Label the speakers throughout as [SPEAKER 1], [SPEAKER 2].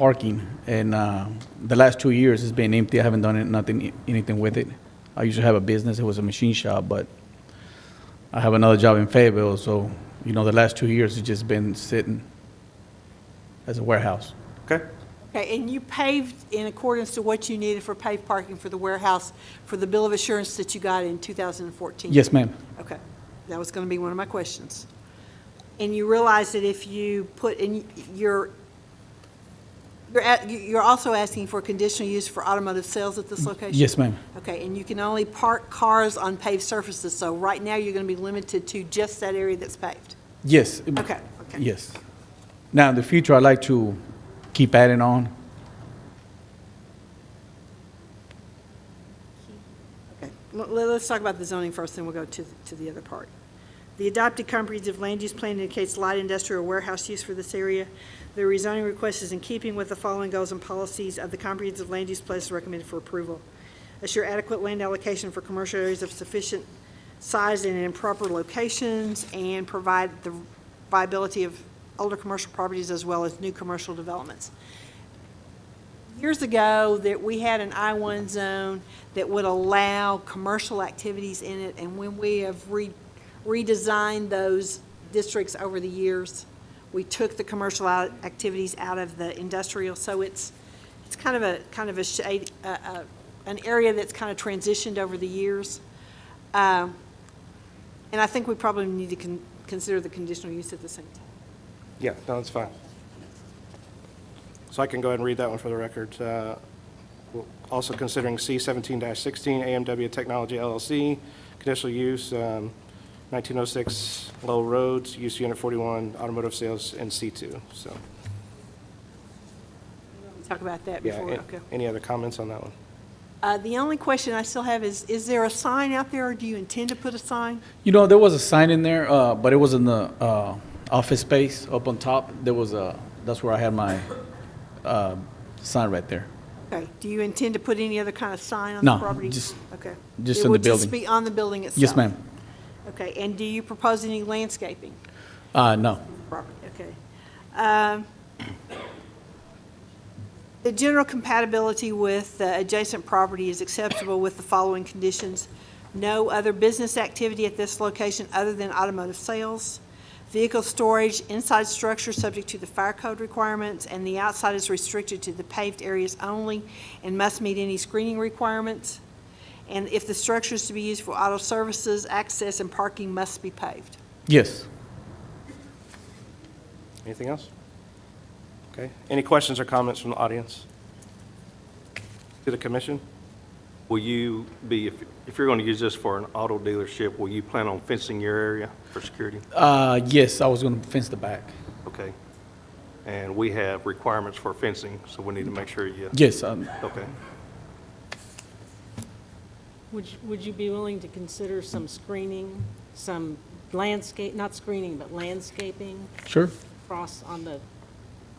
[SPEAKER 1] parking, and uh, the last two years it's been empty. I haven't done it, nothing, anything with it. I used to have a business. It was a machine shop, but I have another job in Fayetteville, so, you know, the last two years it's just been sitting as a warehouse.
[SPEAKER 2] Okay,
[SPEAKER 3] Okay, and you paved in accordance to what you needed for paved parking for the warehouse for the bill of assurance that you got in 2014?
[SPEAKER 1] Yes, ma'am.
[SPEAKER 3] Okay, that was going to be one of my questions. And you realize that if you put in, you're, you're at- you're also asking for conditional use for automotive sales at this location?
[SPEAKER 1] Mm, Yes, ma'am.
[SPEAKER 3] Okay, and you can only park cars on paved surfaces, so right now you're going to be limited to just that area that's paved?
[SPEAKER 1] Yes.
[SPEAKER 3] Okay, okay.
[SPEAKER 1] Yes. Now, in the future, I'd like to keep adding on.
[SPEAKER 3] Okay, Let- let's talk about the zoning first, then we'll go to, to the other part. The adopted comprehensive land use plan indicates light industrial warehouse use for this area. The rezoning request is in keeping with the following goals and policies of the comprehensive land use plan is recommended for approval. Assure adequate land allocation for commercial areas of sufficient size and in proper locations, and provide the viability of older commercial properties as well as new commercial developments years ago that we had an I-1 zone that would allow commercial activities in it, and when we have re- redesigned those districts over the years, we took the commercial out- activities out of the industrial, so it's, it's kind of a, kind of a shade, a- a- an area that's kind of transitioned over the years. Um, And I think we probably need to con- consider the conditional use at the same time.
[SPEAKER 2] yeah, no, that's fine. So I can go ahead and read that one for the record. Uh, we'll- Also considering C seventeen sixteen, AMW Technology LLC, conditional use, um, nineteen oh six Lowell Roads, use unit forty-one, automotive sales in C two, so.
[SPEAKER 3] Talk about that
[SPEAKER 2] Yeah,
[SPEAKER 3] before,
[SPEAKER 2] a-
[SPEAKER 3] okay.
[SPEAKER 2] any other comments on that one?
[SPEAKER 3] Uh, The only question I still have is, is there a sign out there, or do you intend to put a sign?
[SPEAKER 1] You know, there was a sign in there, uh, but it was in the, uh, office space up on top. There was a, that's where I had my, uh, sign right there.
[SPEAKER 3] Okay, do you intend to put any other kind of sign on
[SPEAKER 1] No,
[SPEAKER 3] the property?
[SPEAKER 1] just-
[SPEAKER 3] Okay.
[SPEAKER 1] just
[SPEAKER 3] It
[SPEAKER 1] in the
[SPEAKER 3] will
[SPEAKER 1] building.
[SPEAKER 3] be on the building itself?
[SPEAKER 1] Yes, ma'am.
[SPEAKER 3] Okay, and do you propose any landscaping
[SPEAKER 1] Uh, no.
[SPEAKER 3] property? Okay. Um, The general compatibility with the adjacent property is acceptable with the following conditions. No other business activity at this location other than automotive sales. Vehicle storage inside structure subject to the fire code requirements, and the outside is restricted to the paved areas only and must meet any screening requirements. And if the structure is to be used for auto services, access and parking must be paved.
[SPEAKER 1] Yes.
[SPEAKER 2] Anything else? Okay, any questions or comments from the audience? To the commission?
[SPEAKER 4] Will you be, if if you're going to use this for an auto dealership, will you plan on fencing your area for security?
[SPEAKER 1] Uh, yes, I was gonna fence the back.
[SPEAKER 4] Okay. And we have requirements for fencing, so we need to make sure you,
[SPEAKER 1] Yes, um,
[SPEAKER 4] okay.
[SPEAKER 5] Would, you- would you be willing to consider some screening, some landscape, not screening, but landscaping
[SPEAKER 1] sure.
[SPEAKER 5] across on the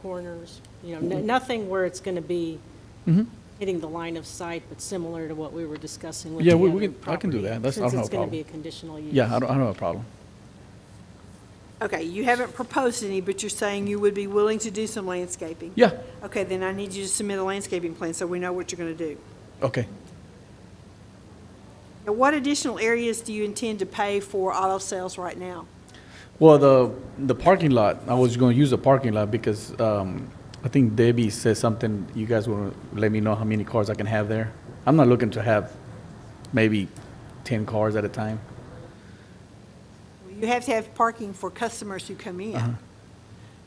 [SPEAKER 5] corners? You know, n- nothing where it's going to be
[SPEAKER 1] Mm-hmm.
[SPEAKER 5] hitting the line of sight, but similar to what we were discussing with the
[SPEAKER 1] Yeah, we-
[SPEAKER 5] other
[SPEAKER 1] we can- I can do
[SPEAKER 5] property,
[SPEAKER 1] that. That's- I don't have a
[SPEAKER 5] Since it's going
[SPEAKER 1] problem.
[SPEAKER 5] to be a conditional use.
[SPEAKER 1] Yeah, I don't, I don't have a problem.
[SPEAKER 3] Okay, you haven't proposed any, but you're saying you would be willing to do some landscaping?
[SPEAKER 1] Yeah,
[SPEAKER 3] Okay, then I need you to submit a landscaping plan so we know what you're going to do.
[SPEAKER 1] okay.
[SPEAKER 3] Now, what additional areas do you intend to pay for auto sales right now?
[SPEAKER 1] Well, the, the parking lot, I was gonna use the parking lot because, um, I think Debbie said something, you guys wanna let me know how many cars I can have there? I'm not looking to have maybe ten cars at a time.
[SPEAKER 3] You have to have parking for customers who come in.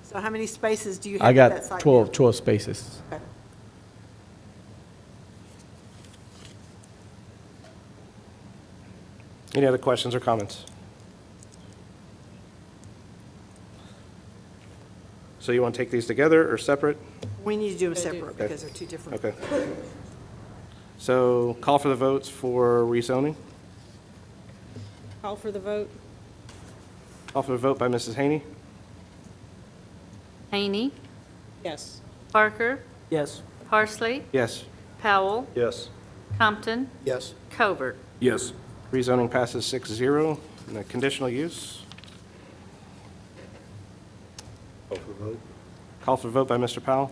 [SPEAKER 3] So how many spaces do you
[SPEAKER 1] Uh-huh. I
[SPEAKER 3] have at
[SPEAKER 1] got
[SPEAKER 3] that site?
[SPEAKER 1] 12, 12 spaces.
[SPEAKER 3] Okay.
[SPEAKER 2] Any other questions or comments? So you want to take these together or separate?
[SPEAKER 3] We need to do them separate because they're two different.
[SPEAKER 2] Okay. So call for the votes for rezoning.
[SPEAKER 5] Call for the vote?
[SPEAKER 2] Call for the vote by Mrs. Haney.
[SPEAKER 6] Haney,
[SPEAKER 5] Yes.
[SPEAKER 6] Parker,
[SPEAKER 7] Yes.
[SPEAKER 6] Parsley,
[SPEAKER 2] Yes.
[SPEAKER 6] Powell,
[SPEAKER 4] Yes.
[SPEAKER 6] Compton,
[SPEAKER 7] Yes.
[SPEAKER 6] Covert.
[SPEAKER 4] Yes.
[SPEAKER 2] Rezoning passes 6-0. And the conditional use? Call for vote. Call for vote by Mr. Powell.